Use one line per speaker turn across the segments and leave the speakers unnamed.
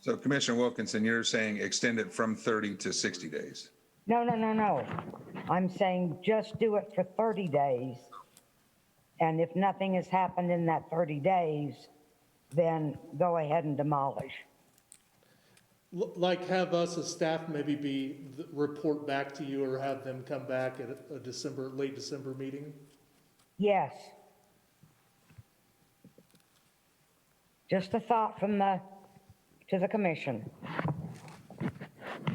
So Commissioner Wilkinson, you're saying extend it from 30 to 60 days.
No, no, no, no. I'm saying just do it for 30 days. And if nothing has happened in that 30 days, then go ahead and demolish.
L- Like have us as staff maybe be, th- report back to you or have them come back at a- a December, late December meeting?
Yes. Just a thought from the, to the commission.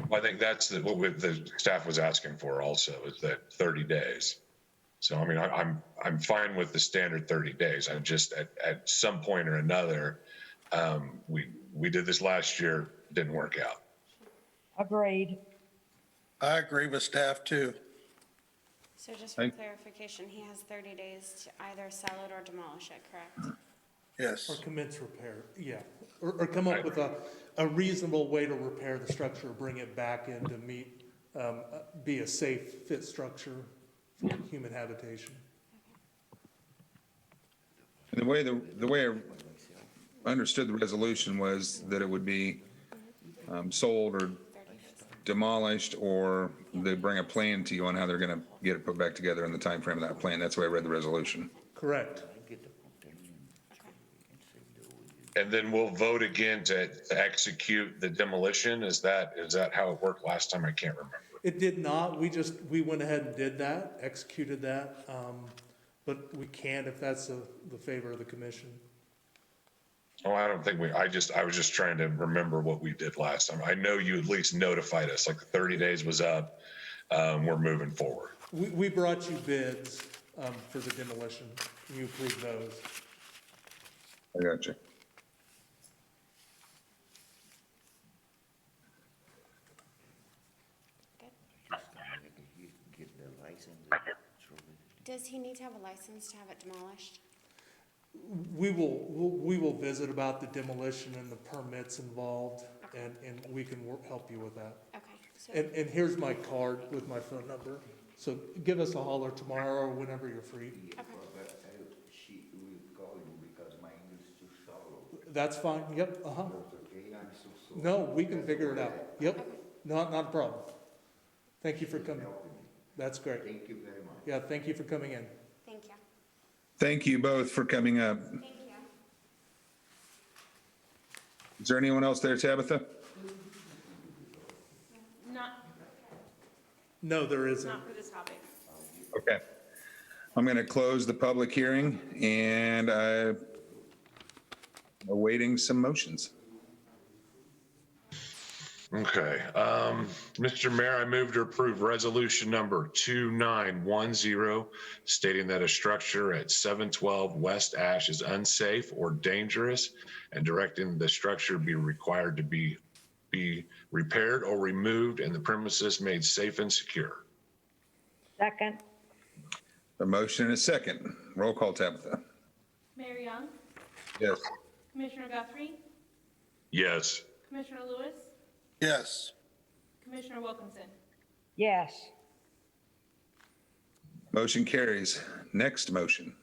Well, I think that's the- what we- the staff was asking for also, is that 30 days. So I mean, I- I'm, I'm fine with the standard 30 days. I'm just, at, at some point or another, um, we, we did this last year, didn't work out.
Agreed.
I agree with staff too.
So just
I-
for clarification, he has 30 days to either sell it or demolish it, correct?
Or
Yes.
commence repair, yeah. Or, or come up with a, a reasonable way to repair the structure, bring it back in to meet, um, uh, be a safe fit structure for human habitation.
And the way, the, the way I understood the resolution was that it would be um, sold or demolished, or they bring a plan to you on how they're going to get it put back together in the timeframe of that plan. That's the way I read the resolution.
Correct.
And then we'll vote again to to execute the demolition. Is that, is that how it worked last time? I can't remember.
It did not, we just, we went ahead and did that, executed that, um, but we can if that's the, the favor of the commission.
Oh, I don't think we, I just, I was just trying to remember what we did last time. I know you at least notified us, like the 30 days was up. Um, we're moving forward.
We, we brought you bids, um, for the demolition, you approved those.
I got you.
Does he need to have a license to have it demolished?
We will, we will visit about the demolition and the permits involved, and, and we can wor- help you with that.
Okay, so,
And, and here's my card with my phone number, so give us a holler tomorrow or whenever you're free.
But I, she will call you because my English is too shallow,
That's fine, yep, uh-huh.
okay? I'm so sorry.
No, we can figure it out, yep, not, not a problem. Thank you for coming. That's great.
Thank you very much.
Yeah, thank you for coming in.
thank you.
Thank you both for coming up.
Thank you.
Is there anyone else there, Tabitha?
Not,
No, there isn't.
not for this topic.
Okay. I'm going to close the public hearing and I'm awaiting some motions.
Okay, um, Mr. Mayor, I move to approve resolution number 2910, stating that a structure at 712 West Ash is unsafe or dangerous, and directing the structure be required to be, be repaired or removed, and the premises made safe and secure.
Second,
A motion and a second. Roll call, Tabitha.
Mayor Young,
Yes.
Commissioner Guthrie,
Yes.
Commissioner Lewis,
Yes.
Commissioner Wilkinson.
yes.
Motion carries. Next motion.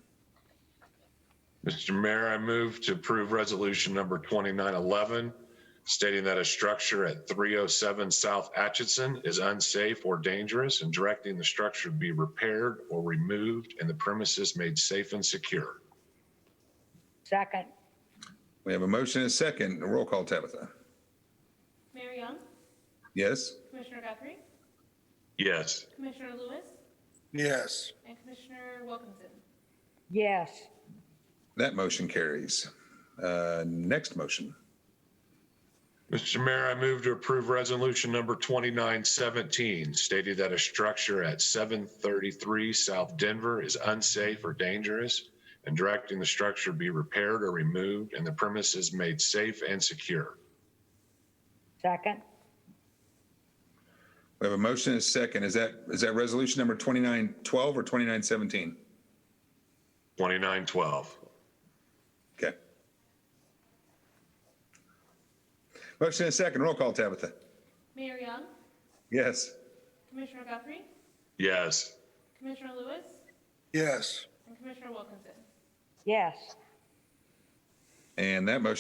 Mr. Mayor, I move to approve resolution number 2911, stating that a structure at 307 South Atchison is unsafe or dangerous and directing the structure be repaired or removed and the premises made safe and secure.
Second,
We have a motion and a second. Roll call, Tabitha.
Mayor Young,
Yes?
Commissioner Guthrie,
Yes.
Commissioner Lewis,
Yes.
and Commissioner Wilkinson.
yes.
That motion carries. Uh, Next motion.
Mr. Mayor, I move to approve resolution number 2917, stating that a structure at 733 South Denver is unsafe or dangerous and directing the structure be repaired or removed and the premises made safe and secure.
Second,
We have a motion and a second. Is that, is that resolution number 2912 or 2917?
2912.
Okay. Motion and a second. Roll call, Tabitha.
Mayor Young,
Yes.
Commissioner Guthrie,
Yes.
Commissioner Lewis,
Yes.
and Commissioner Wilkinson.
yes.
And that motion